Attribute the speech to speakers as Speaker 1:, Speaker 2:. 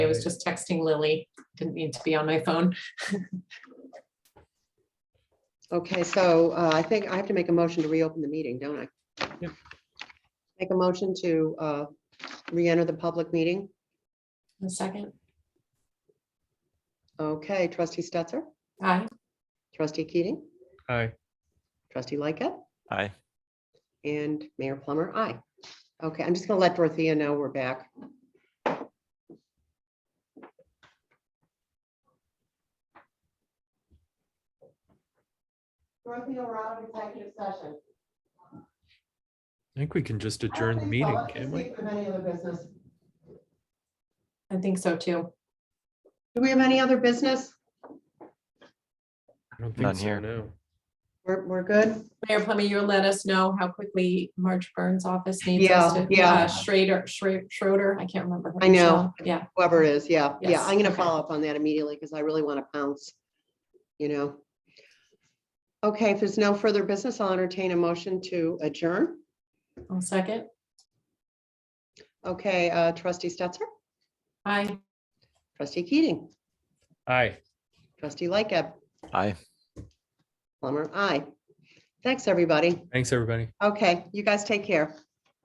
Speaker 1: was just texting Lily. Didn't need to be on my phone.
Speaker 2: Okay, so uh, I think I have to make a motion to reopen the meeting, don't I?
Speaker 3: Yep.
Speaker 2: Make a motion to uh, re-enter the public meeting.
Speaker 1: A second.
Speaker 2: Okay, trustee Stetser,
Speaker 1: Aye.
Speaker 2: trustee Keating,
Speaker 3: Aye.
Speaker 2: trustee Lightgett,
Speaker 4: Aye.
Speaker 2: and Mayor Plummer, aye. Okay, I'm just gonna let Dorothea know we're back. Dorothea, we're out of executive session.
Speaker 3: I think we can just adjourn the meeting, can't we?
Speaker 1: I think so too.
Speaker 2: Do we have any other business?
Speaker 3: I don't
Speaker 4: None
Speaker 3: think so,
Speaker 4: here.
Speaker 3: no.
Speaker 2: We're, we're good?
Speaker 1: Mayor Plummer, you'll let us know how quickly Marge Burns' office needs us
Speaker 2: Yeah,
Speaker 1: to.
Speaker 2: yeah.
Speaker 1: uh, Schrader, Schra- Schroeder, I can't remember. her
Speaker 2: I know.
Speaker 1: name. Yeah,
Speaker 2: Whoever it is, yeah, yeah,
Speaker 1: Yes,
Speaker 2: I'm gonna
Speaker 1: okay.
Speaker 2: follow up on that immediately because I really want to pounce, you know. Okay, if there's no further business, I'll entertain a motion to adjourn.
Speaker 1: I'll second.
Speaker 2: Okay, uh, trustee Stetser,
Speaker 1: Aye.
Speaker 2: trustee Keating,
Speaker 3: Aye.
Speaker 2: trustee Lightgab,
Speaker 4: Aye.
Speaker 2: Plummer, aye. Thanks, everybody.
Speaker 3: Thanks, everybody.
Speaker 2: Okay, you guys take care.